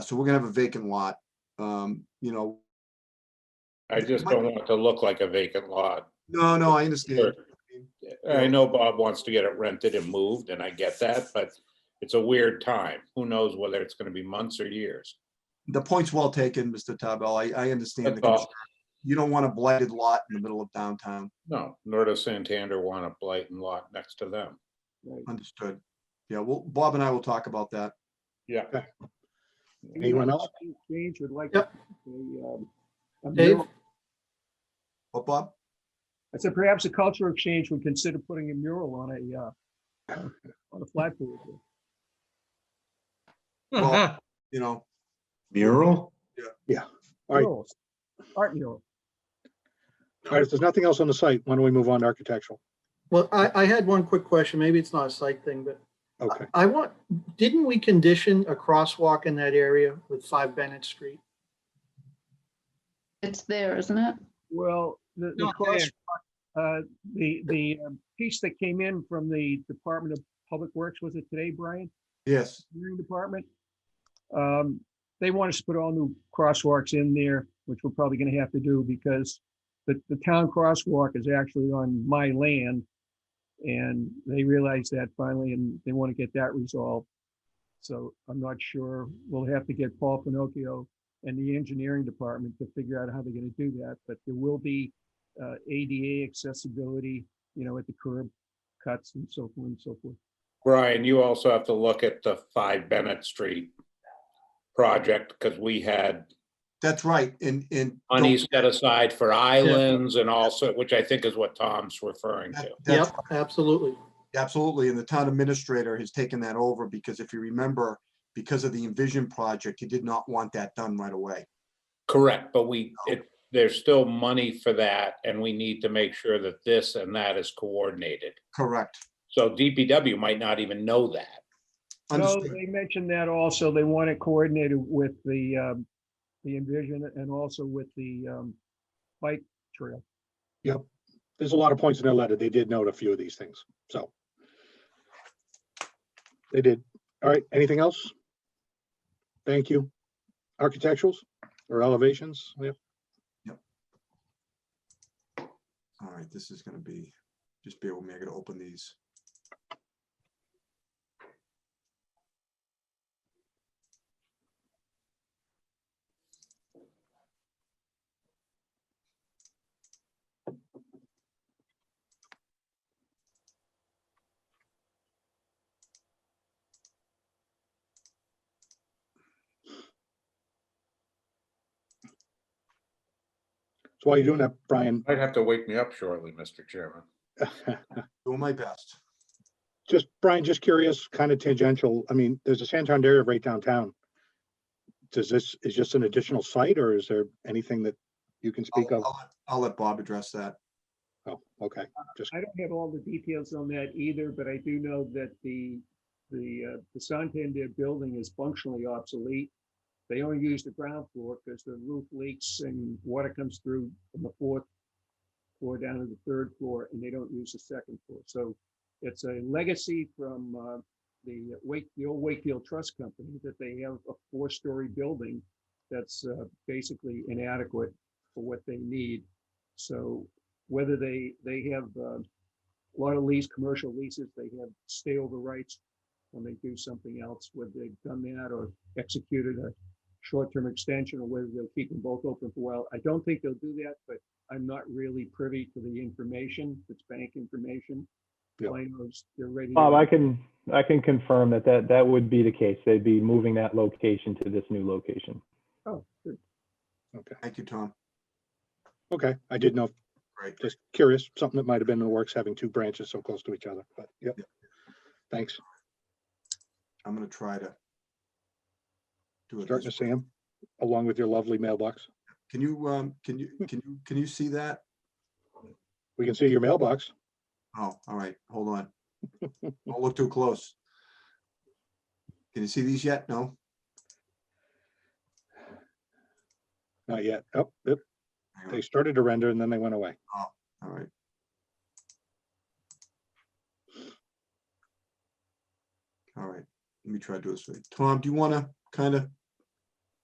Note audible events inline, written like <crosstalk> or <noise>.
so we're gonna have a vacant lot. Um, you know, I just don't want it to look like a vacant lot. no, no, I understand. I know Bob wants to get it rented and moved, and I get that, but it's a weird time. Who knows whether it's gonna be months or years? The point's well taken, Mr. Tabell. I, I understand. the That's all. concern. You don't want a blighted lot in the middle of downtown. No, nor does Santander want a blighted lot next to them. Understood. Yeah, well, Bob and I will talk about that. Yeah. Anyone else? Exchange would like. Yep. a, um, a Dave? mural- But Bob, I said perhaps a cultural exchange would consider putting a mural on a, uh, on a flagpole. Well- you know, Mural? All right. Murals. Art mural. All right, if there's nothing else on the site, why don't we move on to architectural? Well, I, I had one quick question. Maybe it's not a site thing, but Okay, I want, didn't we condition a crosswalk in that area with five Bennett Street? It's there, isn't it? Well, the, the Not there. cross, uh, the, the um, piece that came in from the Department of Public Works, was it today, Brian? yes, engineering department. Um, They want us to put all new crosswalks in there, which we're probably gonna have to do because the, the town crosswalk is actually on my land. And they realize that finally, and they want to get that resolved. So I'm not sure, we'll have to get Paul Pinocchio and the engineering department to figure out how they're gonna do that, but there will be uh, ADA accessibility, you know, at the curb cuts and so forth and so forth. Brian, you also have to look at the five Bennett Street project, because we had that's right. And, and. don't- money set aside for islands and also, which I think is what Tom's referring to. that- that's Yep, absolutely. Absolutely, and the town administrator has taken that over because if you remember, because of the Envision project, he did not want that done right away. Correct, but we, it, there's still money for that, and we need to make sure that this and that is coordinated. Correct. So DPW might not even know that. No, Understood. they mentioned that also. They want it coordinated with the, um, the Envision and also with the, um, bike trail. there's a lot of points in their letter. They did note a few of these things, so. They did. All right, anything else? Thank you. Architecturals or elevations? Yep. All right, this is gonna be, just bear with me, I gotta open these. So while you're doing that, Brian, Might have to wake me up shortly, Mr. Chairman. Doing my best. just, Brian, just curious, kind of tangential. I mean, there's a Santander right downtown. Does this, is just an additional site or is there anything that you can I'll, speak of? I'll let- I'll let Bob address that. Oh, okay, just, I don't have all the details on that either, but I do know that the, the, uh, the Santander building is functionally obsolete. They only use the ground floor because the roof leaks and water comes through from the fourth floor down to the third floor and they don't use the second floor. So it's a legacy from, uh, the Wake, the old Wakefield Trust Company that they have a four-story building that's, uh, basically inadequate for what they need. So whether they, they have uh, a lot of lease, commercial leases, they have stay over rights when they do something else, whether they've done that or executed a short-term extension or whether they'll keep them both open for a while. I don't think they'll do that, but I'm not really privy to the information, it's bank information. Yeah. Plano's, they're ready. to Bob, go. I can, I can confirm that that, that would be the case. They'd be moving that location to this new location. Oh, good. okay, Thank you, Tom. okay. I did know if Great. just curious, something that might have been in the works, having two branches so close to each other, but yep. Thanks. I'm gonna try to. Do it. Starting to this see way. 'em, along with your lovely mailbox. Can you, um, can you, can you, can you see that? We can see your mailbox. Oh, all right, hold <laughs> on. Don't look too close. Can you see these yet? No? Not yet. Oh, yep, Hang on. they started to render and then they went away. All right. All right, let me try to do this. for you. Tom, do you want to kind of